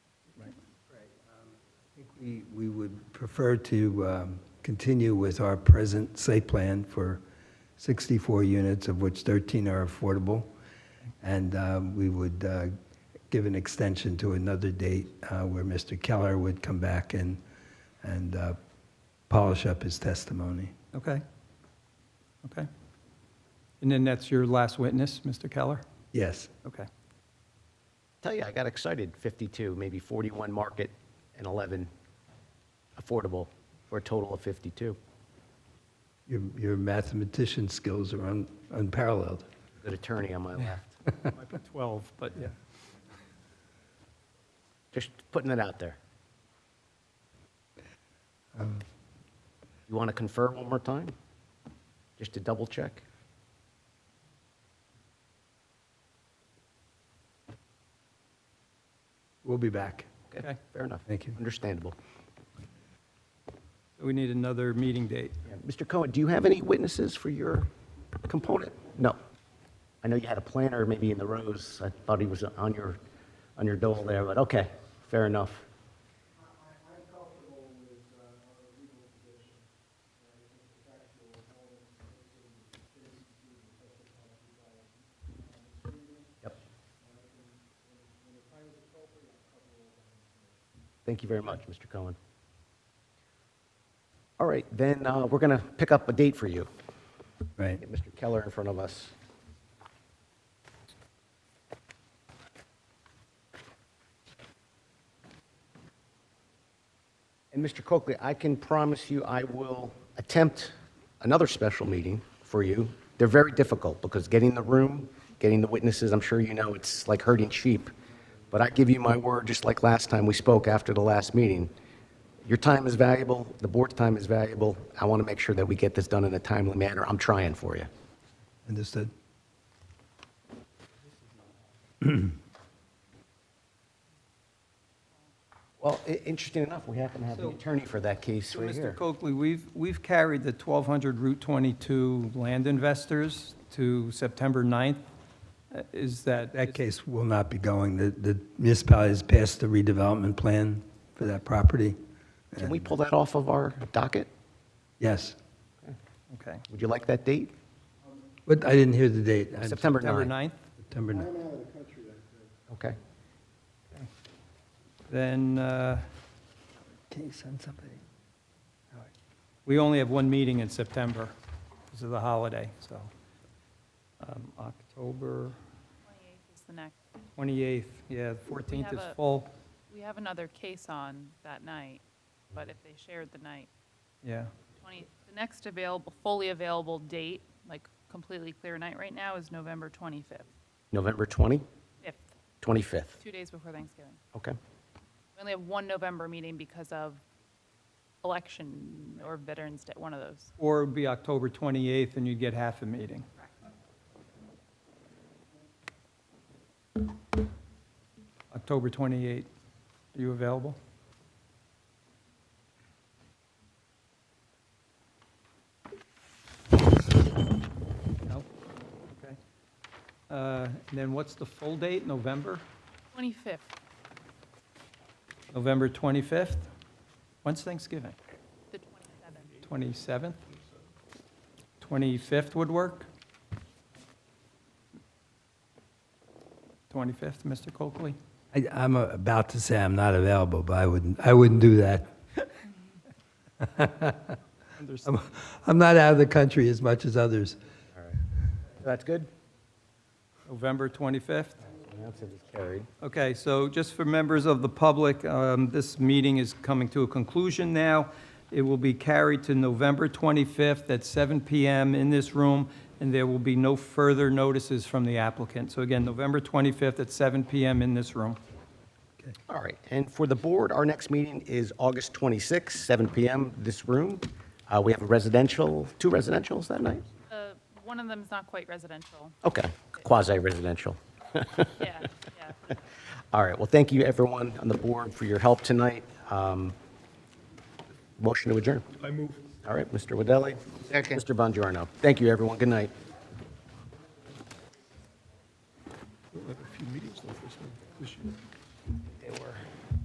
We we would prefer to um, continue with our present site plan for 64 units, of which 13 are affordable, and um, we would uh, give an extension to another date uh, where Mr. Keller would come back and, and uh, polish up his testimony. Okay. Okay. And then that's your last witness, Mr. Keller? Yes, Okay. Tell you, I got excited, 52, maybe 41 market and 11 affordable, for a total of 52. your your mathematician skills are un- unparalleled. Good attorney on my left. Might be 12, but yeah. Just putting it out there. Um, You want to confirm one more time? Just to double check? We'll be back. Okay. Fair enough. Thank you. Understandable. So we need another meeting date. Yeah. Mr. Cohen, do you have any witnesses for your component? No. I know you had a planner maybe in the rows. I thought he was on your, on your dole there, but okay, fair enough. Yep. Thank you very much, Mr. Cohen. All right, then uh, we're going to pick up a date for you. Right. Get Mr. Keller in front of us. And Mr. Coakley, I can promise you I will attempt another special meeting for you. They're very difficult because getting the room, getting the witnesses, I'm sure you know, it's like herding sheep. But I give you my word, just like last time we spoke after the last meeting, your time is valuable, the board's time is valuable. I want to make sure that we get this done in a timely manner. I'm trying for you. Understood? Well, i- interesting enough, we happen to have the attorney for that case So, right Mr. here. Coakley, we've, we've carried the 1,200 Route 22 land investors to September 9th. Uh, Is that? That case will not be going. The, the municipality has passed the redevelopment plan for that property. Can we pull that off of our docket? Yes. Okay. Would you like that date? But I didn't hear the date. I'm- September September 9th. 9th? September 9th. Okay. Then uh, Can you send somebody? we only have one meeting in September because of the holiday, so. um, October 28th is the next. 28th, yeah, the 14th have is a- full, We have another case on that night, but if they shared the night, yeah. 20, the next available, fully available date, like completely clear night right now, is November 25th, November 20, 5th, 25th. two days before Thanksgiving. Okay. We only have one November meeting because of election or Veterans Day, one of those. Or it would be October 28th, and you'd get half a meeting. October 28th, are you available? No? Okay. Uh, and Then what's the full date, November? 25th, November 25th? When's Thanksgiving? the 27th. 27th? 25th would work? 25th, Mr. Coakley? I, I'm uh, about to say I'm not available, but I wouldn't, I wouldn't do that. Understood. I'm, I'm not out of the country as much as others. That's good? November 25th? That's carried. Okay, so just for members of the public, um, this meeting is coming to a conclusion now. It will be carried to November 25th at 7 PM in this room, and there will be no further notices from the applicant. So again, November 25th at 7 PM in this room. All right, and for the board, our next meeting is August 26th, 7 PM, this room. Uh, We have a residential, two residentials that night? Uh, One of them's not quite residential. Okay, quasi-residential. Yeah, yeah. All right, well, thank you, everyone on the board, for your help tonight. Um, Motion to adjourn. I move. All right, Mr. Wadeli. Second. Mr. Bongiorno. Thank you, everyone. Good night. We'll have a few meetings though this year.